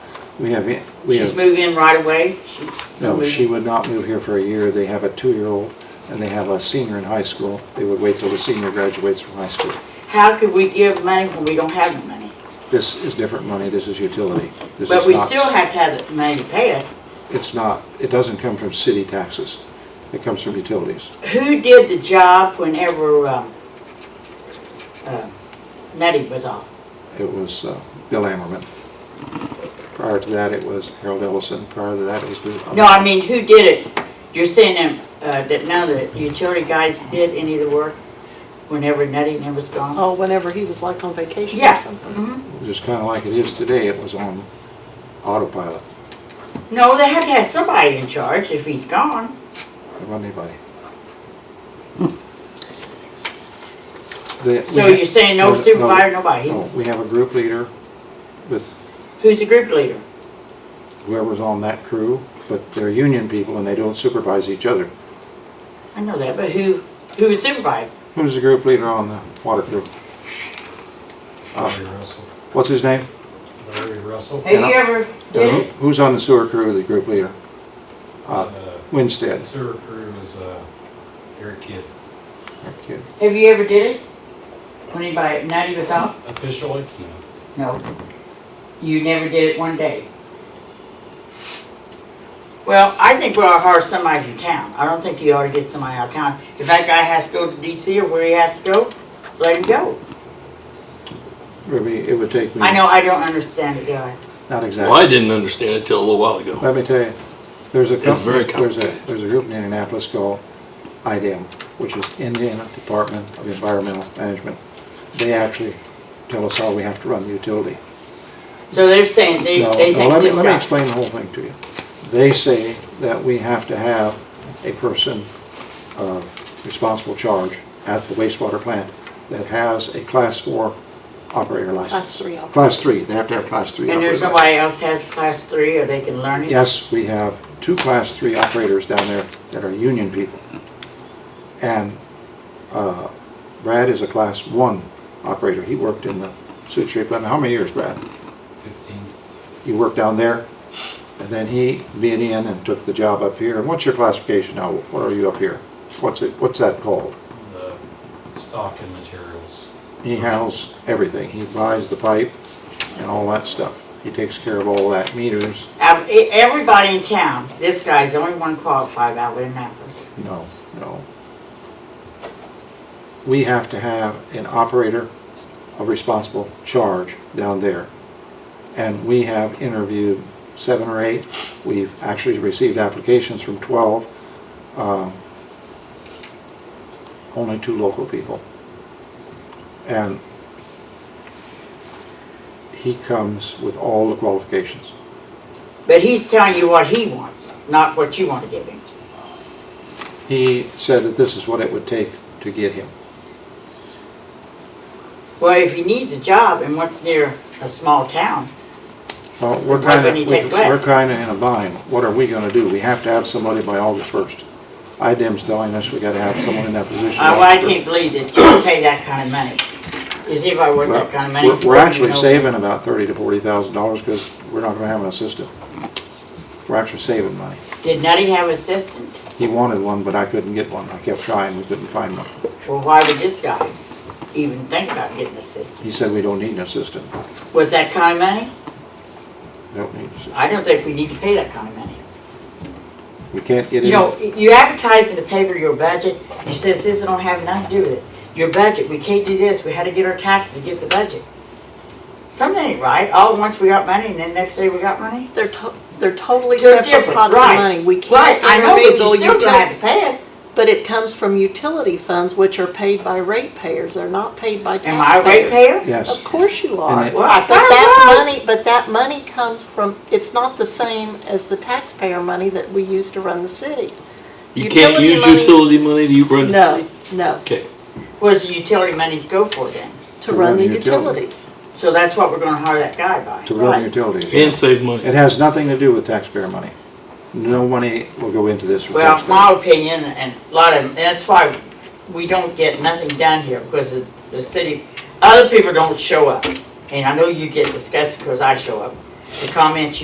We have, we She's have, moving in right away? She- no, she would not move here for a year. They have a two-year-old and they have a senior in high school. They would wait till the senior graduates from high school. How could we give money when we don't have the money? This is different money. This is utility. This But is we not- still have to have the money to pay it. It's not, it doesn't come from city taxes. It comes from utilities. Who did the job whenever, um, uh, Nutty was off? It was uh, Bill Ammerman. Prior to that, it was Harold Ellison. Prior to that, it was Bill. No, I mean, who did it? You're saying that, uh, that none of the utility guys did any of the work whenever Nutty and them was gone? Mm-hmm. Oh, whenever he was like on vacation Yeah. or something. Just kind of like it is today. It was on autopilot. No, they had to have somebody in charge if he's gone. It wasn't anybody. The- Hmm. So we- you're saying no supervisor, nobody? No, we have a group leader with Who's the group leader? whoever's on that crew, but they're union people and they don't supervise each other. I know that, but who, who was supervised? Who's the group leader on the water crew? Uh, Larry Russell. What's his name? Uh, Larry Russell. Have you ever did Who- it? Who's on the sewer crew, the group leader? Uh, Uh, Winstead. And sewer crew is uh, Eric Kidd. That kid. Have you ever did it? When anybody, Nutty was off? Officially, no. No. You never did it one day? Well, I think we ought to hire somebody from town. I don't think you ought to get somebody out of town. If that guy has to go to DC or where he has to go, let him go. Ruby, it would take me. I know, I don't understand it, do I? Not Well, I exactly. didn't understand it till a little while Uh, ago. Let me tell you, there's a It's very company, there's a, complicated. there's a group in Indianapolis called IDEM, which is Indiana Department of Environmental Management. They actually tell us how we have to run the utility. So they're saying they, No, they no, think let me- this Let me guy. explain the whole thing to you. They say that we have to have a person of responsible charge at the wastewater plant that has a class four operator license. Class three operator. Class three, they have to have class three. And there's operator license. nobody else has class three or they can learn it? Yes, we have two class three operators down there that are union people. And uh, Brad is a class one operator. He worked in the Sioux Chief. plant. How many years, Brad? 15. you worked down there, and then he bid in and took the job up here. And what's your classification now? What are you up here? What's it, what's that called? The stock and materials. He handles everything. He buys the pipe and all that stuff. He takes care of all that meters. Out of e- everybody in town, this guy's the only one qualified out of Annapolis. No, no. We have to have an operator of responsible charge down there. And we have interviewed seven or eight. We've actually received applications from 12. um, Only two local people. And he comes with all the qualifications. But he's telling you what he wants, not what you want to give him. He said that this is what it would take to get him. Well, if he needs a job and wants near a small town, uh, Well, we're Why kind couldn't he of, take we're less? kind of in a bind. What are we going to do? We have to have somebody by August 1st. IDEM's telling us we got to have someone in that position. I, by Uh, well, I August 1st. can't believe that you pay that kind of money. Is anybody worth that kind of money? We're- We're actually No. saving about thirty to $40,000 because we're not going to have an assistant. We're actually saving money. Did Nutty have assistant? He wanted one, but I couldn't get one. I kept trying, we couldn't find one. Well, why would this guy even think about getting assistant? He said we don't need an assistant. With that kind of money? We don't need an assistant. I don't think we need to pay that kind of money. We can't get You know, in. you advertise in the paper your budget, you says this don't have nothing to do with it. Your budget, we can't do this, we had to get our taxes to get the budget. Something ain't right, all at once we got money and then next day we got money. They're to, they're totally They're separate different, pots of right. money. We Right, can't I know, but intermingle you still gonna have utility. to pay it. But it comes from utility funds, which are paid by ratepayers. They're not paid by Am I a taxpayers. ratepayer? Of Yes. course you And are. it- Well, I But thought that I was. money, but that money comes from, it's not the same as the taxpayer money that we use to run the city. You can't Utility use money- utility money to run the No, city? no, Okay, Where's the utility monies go for then? to run the utilities. So that's what we're gonna hire that guy by. To run Right. utilities. and save It money. has nothing to do with taxpayer money. No money will go into this for Well, taxpayer. my opinion, and a lot of, and that's why we don't get nothing done here, because the, the city, other people don't show up. And I know you get disgusted because I show up, the comments you